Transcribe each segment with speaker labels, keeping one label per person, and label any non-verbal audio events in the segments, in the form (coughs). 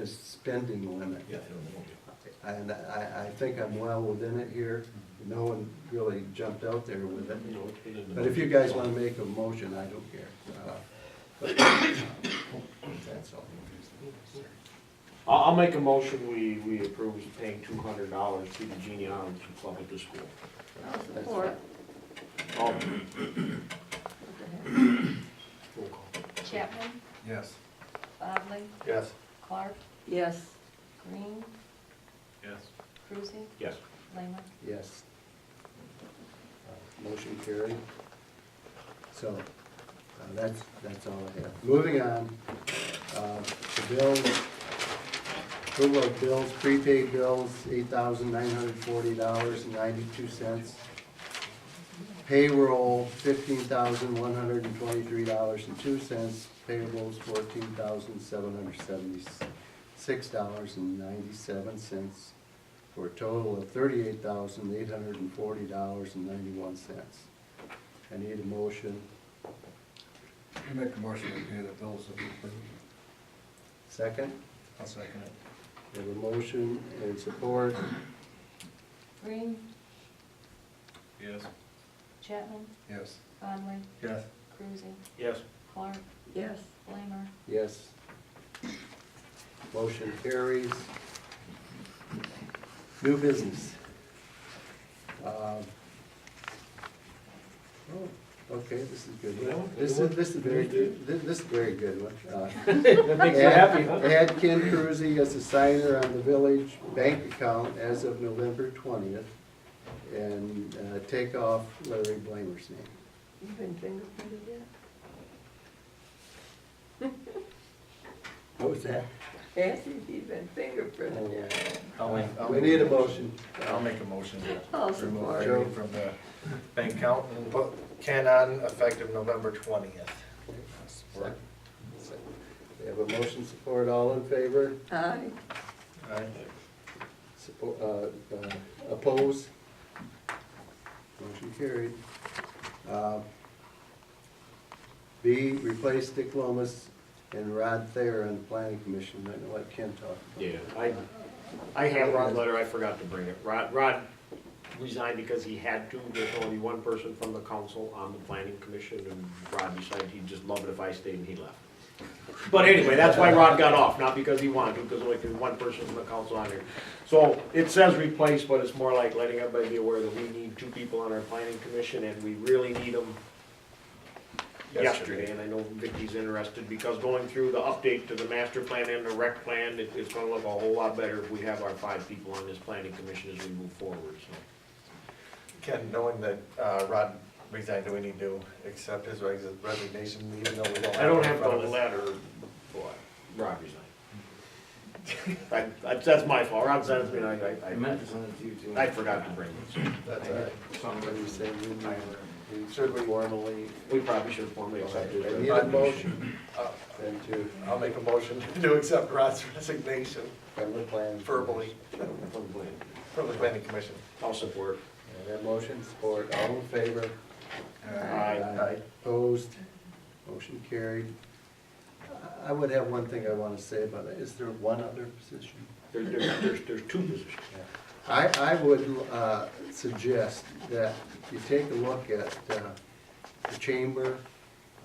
Speaker 1: a spending limit.
Speaker 2: Yeah, I don't know.
Speaker 1: And I, I think I'm well within it here. No one really jumped out there with
Speaker 3: Mm-hmm.
Speaker 1: it.
Speaker 2: No, it's within the-
Speaker 1: But if you guys want to make a motion, I don't care. Uh, (coughs) but, uh, That's all.
Speaker 3: I'll, I'll make a motion, we, we approve paying two hundred dollars to the Genie Island Club at the school. Oh,
Speaker 4: I'll support.
Speaker 3: All, roll call.
Speaker 4: Chapman,
Speaker 5: Yes.
Speaker 4: Bodley,
Speaker 2: Yes.
Speaker 4: Clark,
Speaker 6: Yes.
Speaker 4: Green,
Speaker 2: Yes.
Speaker 4: Cruising,
Speaker 3: Yes.
Speaker 4: Lehman.
Speaker 1: Yes. Uh, Motion carried. So, uh, that's, that's all I have. Moving on, uh, the bills, approval of bills, prepaid bills, eight thousand nine hundred forty dollars and ninety-two cents. Payroll, fifteen thousand one hundred and twenty-three dollars and two cents. Payables, fourteen thousand seven hundred seventy-six dollars and ninety-seven cents for a total of thirty-eight thousand eight hundred and forty dollars and ninety-one cents. I need a motion,
Speaker 5: I make a motion to pay the bills if approved.
Speaker 1: second,
Speaker 5: I'll second it.
Speaker 1: We have a motion and support,
Speaker 4: Green,
Speaker 2: Yes.
Speaker 4: Chapman,
Speaker 5: Yes.
Speaker 4: Bodley,
Speaker 5: Yes.
Speaker 4: Cruising,
Speaker 3: Yes.
Speaker 4: Clark,
Speaker 6: Yes.
Speaker 4: Lamer,
Speaker 1: yes. Motion carries. New business. Um, oh, Okay, this is a good one, this is, this is very, good. this this is a very good one. (laughs) Uh,
Speaker 3: That makes you happy, huh?
Speaker 1: Add Ken Cruzy as a signer on the village bank account as of November twentieth, and uh, take off Larry Blamer's name.
Speaker 6: You've been fingerprinted
Speaker 1: What was that?
Speaker 6: yet? Nancy, you've been
Speaker 4: Oh,
Speaker 6: fingerprinted yet?
Speaker 5: I'll make,
Speaker 1: We need a motion.
Speaker 5: I'll make a motion
Speaker 6: I'll
Speaker 5: to remove
Speaker 6: support.
Speaker 5: Larry from the bank account and put Ken on effective November twentieth.
Speaker 1: Support. We have a motion support, all in favor,
Speaker 6: Aye.
Speaker 5: Aye.
Speaker 1: support, uh, uh, oppose? Motion carried. Uh, B, replace Dick Lomas and Rod Thayer on the planning commission, I know what Ken talked about.
Speaker 3: Yeah, I, I have Rod's letter, I forgot to bring it. Rod, Rod resigned because he had to, there's only one person from the council on the planning commission, and Rod decided he'd just love it if I stayed, and he left. But anyway, that's why Rod got off, not because he wanted to, because only there's one person from the council on there. So it says replace, but it's more like letting everybody be aware that we need two people on our planning commission, and we really need them yesterday, and I know Vicky's interested, because going through the update to the master plan and the rec plan, it, it's gonna look a whole lot better if we have our five people on this planning commission as we move forward, so.
Speaker 7: Ken, knowing that uh, Rod resigned, do we need to accept his res- resignation, even though we don't?
Speaker 3: I don't
Speaker 7: it in
Speaker 3: have the
Speaker 7: front of us?
Speaker 3: letter, boy, Rob resigned. (laughs) I, I, that's my fault, Rob sent it to me, and I, I- I, I forgot to bring it, so.
Speaker 7: That's all right.
Speaker 1: Somebody said we might, we
Speaker 7: Should we-
Speaker 1: formally,
Speaker 3: We probably should have formally accepted
Speaker 1: I
Speaker 3: it.
Speaker 1: need a motion
Speaker 7: Uh,
Speaker 1: then to,
Speaker 7: I'll make a motion (laughs) to accept Rod's resignation
Speaker 1: from the plan.
Speaker 7: verbally
Speaker 3: From the plan.
Speaker 7: from the planning commission.
Speaker 3: I'll support.
Speaker 1: And that motion support, all in favor?
Speaker 3: Aye.
Speaker 1: Opposed, motion carried. I- I would have one thing I want to say about that, is there one other position?
Speaker 3: There, there, there's, there's two positions.
Speaker 1: I, I would uh, suggest that you take a look at uh, the chamber,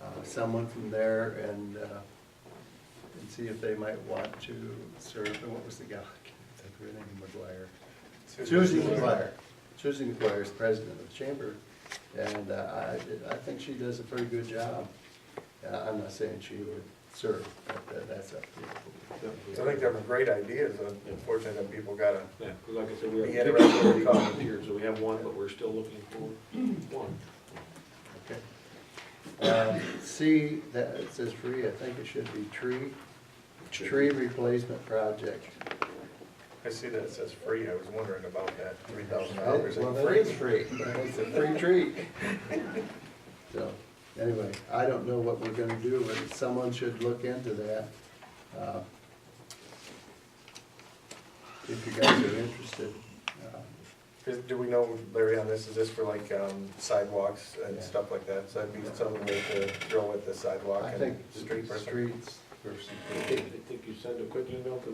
Speaker 1: uh, someone from there, and, uh, and see if they might want to serve, and what was the gal, I can't think of her name, McGuire. Susie McGuire, Susie McGuire is president of the chamber, and uh, I, I think she does a pretty good job. Uh, I'm not saying she would serve, but that- that's up to
Speaker 7: So I think they're great ideas, unfortunately, that people gotta,
Speaker 3: Yeah, 'cause like I said, we have.
Speaker 7: We had a resolution.
Speaker 3: volunteers, so we have one, but we're still looking for one.
Speaker 1: you. Okay. Uh, C, that, it says free, I think it should be tree, tree replacement project.
Speaker 7: I see that it says free, I was wondering about that, three thousand dollars.
Speaker 1: Oh, Well, that is free, it's a free
Speaker 7: (laughs)
Speaker 1: treat. So, anyway, I don't know what we're gonna do, but someone should look into that. uh, If you guys are interested. Uh,
Speaker 7: Do we know, Larry, on this, is this for like um, sidewalks
Speaker 1: Yeah.
Speaker 7: and stuff like that? So that'd be something we could throw at the sidewalk
Speaker 1: I
Speaker 7: and
Speaker 1: think
Speaker 7: street person?
Speaker 1: streets versus.
Speaker 3: I think you send a quick email to